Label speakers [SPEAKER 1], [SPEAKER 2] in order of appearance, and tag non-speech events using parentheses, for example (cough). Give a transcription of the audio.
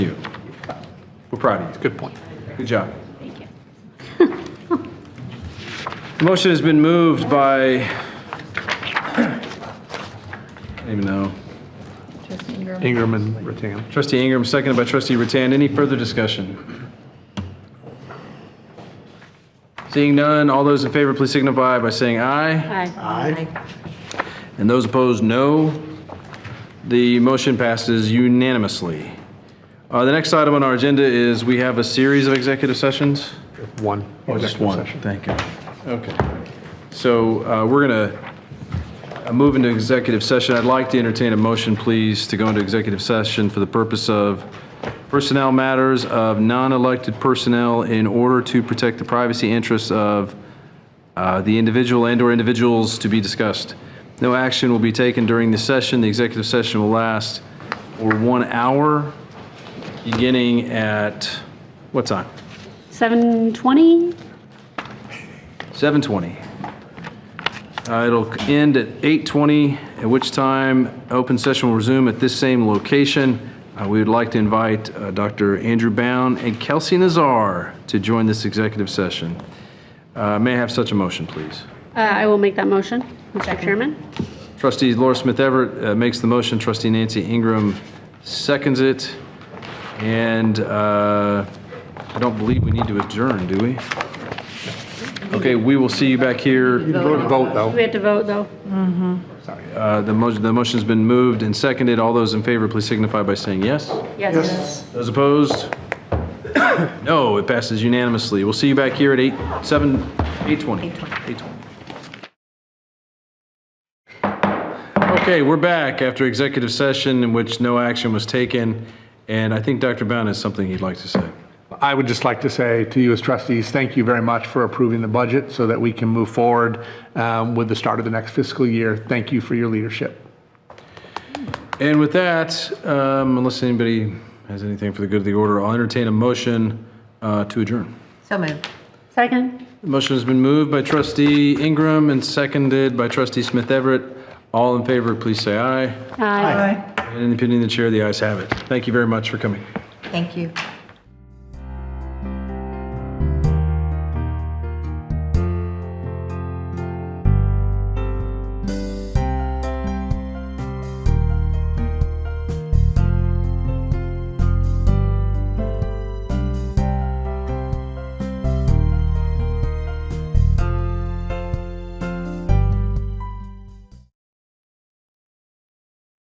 [SPEAKER 1] proud of you.
[SPEAKER 2] Good point.
[SPEAKER 1] Good job.
[SPEAKER 3] Thank you.
[SPEAKER 1] (laughs) Motion has been moved by, (clears throat) I don't even know,
[SPEAKER 3] Trustee Ingram.
[SPEAKER 2] Ingram and Rattan.
[SPEAKER 1] trustee Ingram, seconded by trustee Rattan. Any further discussion? Seeing none, all those in favor, please signify by saying aye.
[SPEAKER 3] Aye.
[SPEAKER 1] And those opposed, no. The motion passes unanimously. Uh, The next item on our agenda is we have a series of executive sessions.
[SPEAKER 2] One.
[SPEAKER 1] Oh, just
[SPEAKER 2] Executive
[SPEAKER 1] one,
[SPEAKER 2] session.
[SPEAKER 1] thank you. Okay. So uh, we're going to move into executive session. I'd like to entertain a motion, please, to go into executive session for the purpose of personnel matters of non-elected personnel in order to protect the privacy interests of uh, the individual and/or individuals to be discussed. No action will be taken during the session. The executive session will last for one hour, beginning at, what time?
[SPEAKER 4] 720?
[SPEAKER 1] 7:20. Uh, It'll end at 8:20, at which time open session will resume at this same location. Uh, We would like to invite uh, Dr. Andrew Bound and Kelsey Nazar to join this executive session. Uh, May I have such a motion, please?
[SPEAKER 4] Uh, I will make that motion, Mr. Chairman.
[SPEAKER 1] Trustee Laura Smith Everett uh, makes the motion, trustee Nancy Ingram seconds it, and uh, I don't believe we need to adjourn, do we? Okay, we will see you back here.
[SPEAKER 2] Vote, vote, though.
[SPEAKER 4] We have to vote, though.
[SPEAKER 1] Uh, The motion, the motion's been moved and seconded. All those in favor, please signify by saying yes.
[SPEAKER 4] Yes.
[SPEAKER 1] Those opposed? (coughs) No, it passes unanimously. We'll see you back here at 8, 7, 8:20. 8:20. Okay, we're back after executive session in which no action was taken, and I think Dr. Bound has something he'd like to say.
[SPEAKER 2] I would just like to say to you as trustees, thank you very much for approving the budget so that we can move forward um, with the start of the next fiscal year. Thank you for your leadership.
[SPEAKER 1] And with that, um, unless anybody has anything for the good of the order, I'll entertain a motion uh, to adjourn.
[SPEAKER 3] So moved.
[SPEAKER 4] Second?
[SPEAKER 1] Motion has been moved by trustee Ingram and seconded by trustee Smith Everett. All in favor, please say aye.
[SPEAKER 4] Aye.
[SPEAKER 1] And in the opinion of the chair, the ayes have it. Thank you very much for coming.
[SPEAKER 3] Thank you.